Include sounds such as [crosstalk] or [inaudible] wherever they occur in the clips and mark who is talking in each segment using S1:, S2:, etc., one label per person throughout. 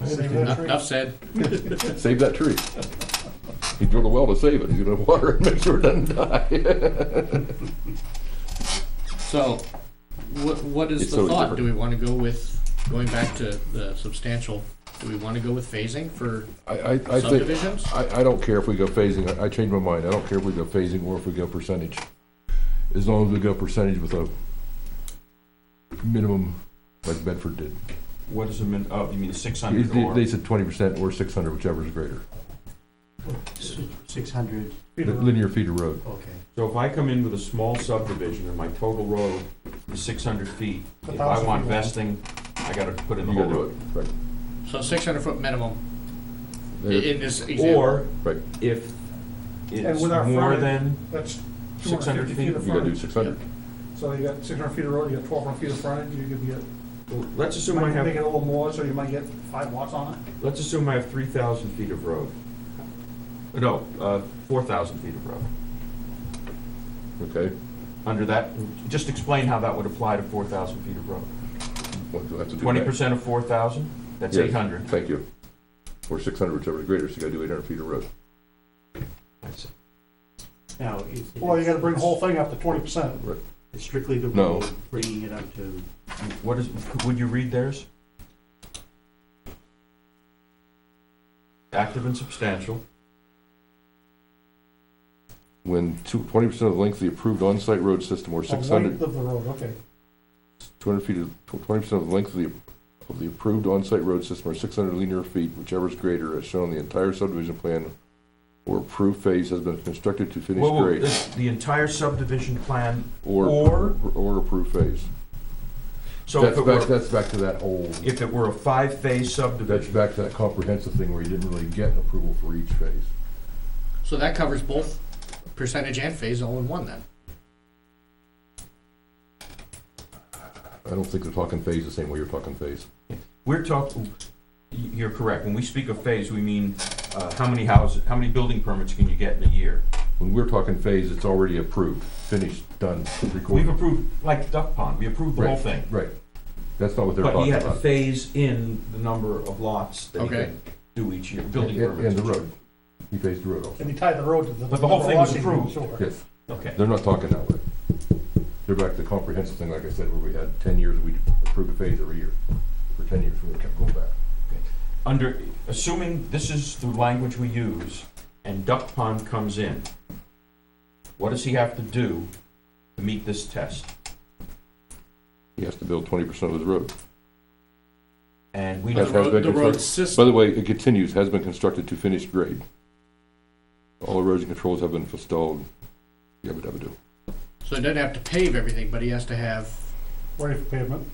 S1: Enough enough said.
S2: Save that tree. He drilled a well to save it. He's gonna water it, [laughs] make sure it doesn't die.
S1: So, what, what is
S2: It's
S1: the
S2: totally
S1: thought? Do we
S2: different.
S1: want to go with, going back to the substantial, do we want to go with phasing for
S2: I, I, I think,
S1: subdivisions?
S2: I, I don't care if we go phasing. I, I changed my mind. I don't care if we go phasing or if we go percentage. As long as we go percentage with a minimum, like Bedford did.
S3: What is the min, oh, you mean six
S2: They-
S3: hundred
S2: They,
S3: or?
S2: they said twenty percent or six hundred, whichever is greater.
S4: Six hundred,
S2: Linear feet of road.
S4: okay.
S3: So if I come in with a small subdivision and my total road is six hundred feet, if I
S4: 1,000
S3: want
S4: feet long.
S3: vesting, I gotta put in the
S2: You
S3: whole
S2: gotta do it.
S3: road.
S2: Right.
S1: So six hundred foot minimum i-
S2: There-
S1: in this example.
S3: Or
S2: Right.
S3: if it's
S5: with our
S3: more
S5: frontage-
S3: than,
S5: That's
S3: 600
S5: 250 feet of
S2: You gotta do
S5: frontage.
S2: six hundred.
S5: So you got 600 feet of road, you got 1,200 feet of frontage, you could get,
S3: let's assume I
S5: might make it
S3: have,
S5: a little more, so you might get five lots on it.
S3: let's assume I have three thousand feet of road. No, uh, four thousand feet of road.
S2: Okay.
S3: Under that, just explain how that would apply to four thousand feet of road.
S2: Well, you'll have to do
S3: Twenty
S2: that.
S3: percent of four thousand, that's
S2: Yes,
S3: eight hundred.
S2: Thank you. Or six hundred, whichever is greater, so you gotta do eight hundred feet of road.
S4: Now, is.
S5: Well, you gotta bring the whole thing up to 20%.
S4: It's Strictly the
S2: No.
S4: rule, bringing it up to,
S3: What is, would you read theirs? Active and substantial,
S2: When two, twenty percent of the length of the approved on-site road
S3: Oh,
S2: system or
S5: The
S2: six hundred,
S5: Length of the road, okay.
S2: two hundred feet of, twenty percent of the length of the, of the approved on-site road system or six hundred linear feet, whichever is greater, as shown in the entire subdivision plan or approved phase has been constructed to finish
S3: Whoa, whoa,
S2: grade,
S3: this- the entire subdivision plan,
S2: or,
S3: or-
S2: or approved phase.
S3: so if
S2: That's
S3: it
S2: back,
S3: were,
S2: that's back to that whole,
S3: if it were a five-phase
S2: that's
S3: subdivision,
S2: back to that comprehensive thing where you didn't really get an approval for each phase.
S1: So that covers both percentage and phase all in one then.
S2: I don't think they're talking phase the same way you're talking phase.
S3: we're talking, you're correct, when we speak of phase, we mean, uh, how many houses, how many building permits can you get in a year?
S2: When we're talking phase, it's already approved, finished, done,
S3: We've
S2: recorded.
S3: approved, like Duck Pond, we approved the whole thing,
S2: Right, that's not what they're
S3: but you
S2: talking
S3: had to
S2: about.
S3: phase in the number of lots that you
S1: Okay.
S3: can do each year, building
S2: And
S3: permits.
S2: and the road, he phased the road also.
S5: And you tie the road to the.
S3: But the whole thing was
S5: Washington
S3: approved.
S5: sewer.
S2: Yes,
S3: Okay.
S2: they're not talking that way. They're back to the comprehensive thing, like I said, where we had ten years, we approved a phase every year. For ten years, we kept going back.
S3: under, assuming this is the language we use, and Duck Pond comes in, what does he have to do to meet this test?
S2: He has to build twenty percent of his road.
S3: And we
S1: The
S2: That's how
S3: know,
S2: it's
S1: road,
S2: been
S1: the road
S2: constructed. By
S1: system,
S2: the way, it continues, has been constructed to finished grade. All erosion controls have been installed, yabba dabba do.
S1: so he doesn't have to pave everything, but he has to have,
S5: Ready for pavement.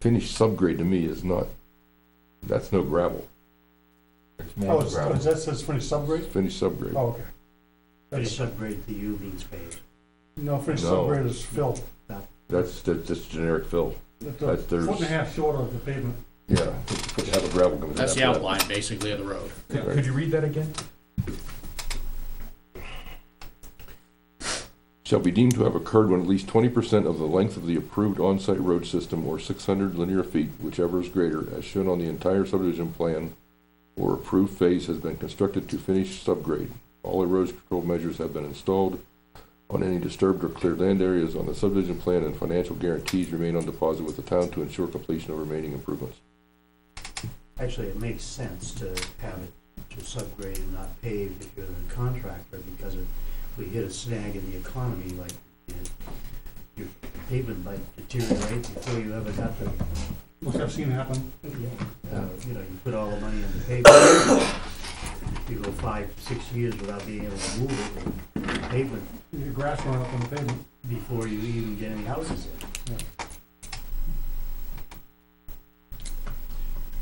S2: Finished subgrade to me is not, that's no gravel,
S3: it's
S5: Oh,
S3: more
S5: it's- oh, is
S3: gravel.
S5: that says finished subgrade?
S2: finished subgrade.
S5: Oh, okay.
S4: it's
S5: That's,
S4: subgrade the U means phase.
S5: no, finished
S2: No.
S5: subgrade is filled.
S2: That's, that's just generic fill.
S5: It's a
S2: That's-
S5: Foot
S2: there's-
S5: and a half short of the pavement.
S2: Yeah. Have a gravel comes in
S1: that's the
S2: after that.
S1: outline basically of the road.
S3: Could could you read that again?
S2: Shall be deemed to have occurred when at least twenty percent of the length of the approved on-site road system or six hundred linear feet, whichever is greater, as shown on the entire subdivision plan or approved phase has been constructed to finish subgrade. All erosion control measures have been installed on any disturbed or cleared land areas on the subdivision plan and financial guarantees remain on deposit with the town to ensure completion of remaining improvements.
S4: Actually, it makes sense to have it to subgrade and not paved if you're a contractor, because if we hit a snag in the economy, like, you know, your pavement might deteriorate before you ever got the,
S5: which I've seen happen.
S4: uh, you know, you put all the money in the pavement. You go five, six years without being able to move it, and pavement,
S5: Your grass run up on the pavement.
S4: before you even get any houses in.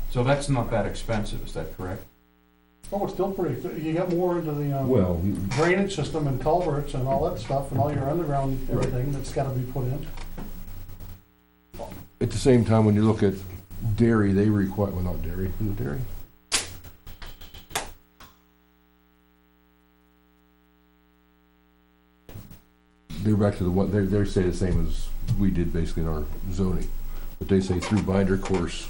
S3: So that's not that expensive, is that correct?
S5: Oh, it's still pretty, you got more into the, um,
S2: Well,
S5: drainage system and culverts and all that stuff and all your underground, everything that's gotta be put in.
S2: At the same time, when you look at dairy, they require, well, not dairy, is it dairy? They're back to the one, they, they say the same as we did basically in our zoning, but they say through binder course